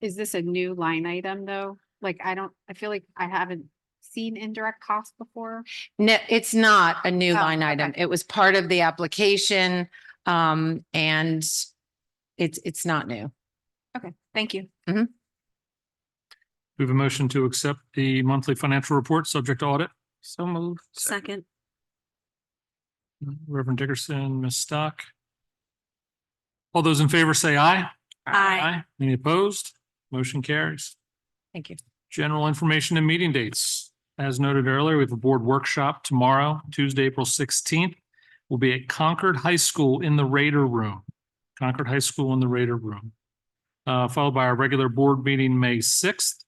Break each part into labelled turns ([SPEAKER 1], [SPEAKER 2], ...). [SPEAKER 1] Is this a new line item though? Like, I don't, I feel like I haven't seen indirect costs before.
[SPEAKER 2] No, it's not a new
[SPEAKER 1] Oh,
[SPEAKER 2] line item.
[SPEAKER 1] okay.
[SPEAKER 2] It was part of the application. Um, and it's, it's not new.
[SPEAKER 1] Okay, thank you.
[SPEAKER 3] We have a motion to accept the monthly financial report subject to audit. So moved.
[SPEAKER 4] Second,
[SPEAKER 3] Reverend Dickerson, Ms. Stock. All those in favor say aye.
[SPEAKER 4] Aye.
[SPEAKER 3] Any opposed? Motion carries.
[SPEAKER 2] Thank you.
[SPEAKER 3] General information and meeting dates. As noted earlier, we have a board workshop tomorrow, Tuesday, April sixteenth. Will be at Concord High School in the Raider Room. Concord High School in the Raider Room. Uh, followed by our regular board meeting, May sixth.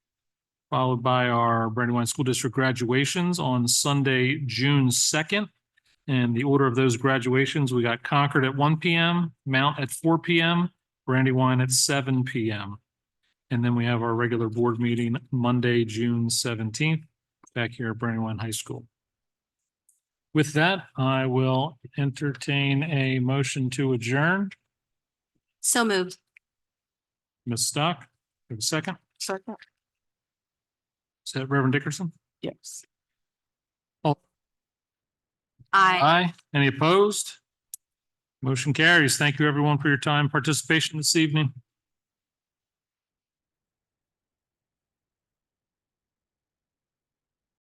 [SPEAKER 3] Followed by our Brandywine School District graduations on Sunday, June second. And the order of those graduations, we got Concord at one P M, Mount at four P M, Brandywine at seven P M. And then we have our regular board meeting Monday, June seventeenth, back here at Brandywine High School. With that, I will entertain a motion to adjourn.
[SPEAKER 4] so moved.
[SPEAKER 3] Ms. Stock, you have a second?
[SPEAKER 1] Second.
[SPEAKER 3] Is that Reverend Dickerson?
[SPEAKER 1] Yes.
[SPEAKER 4] Aye.
[SPEAKER 3] Aye. Any opposed? Motion carries. Thank you, everyone, for your time, participation this evening.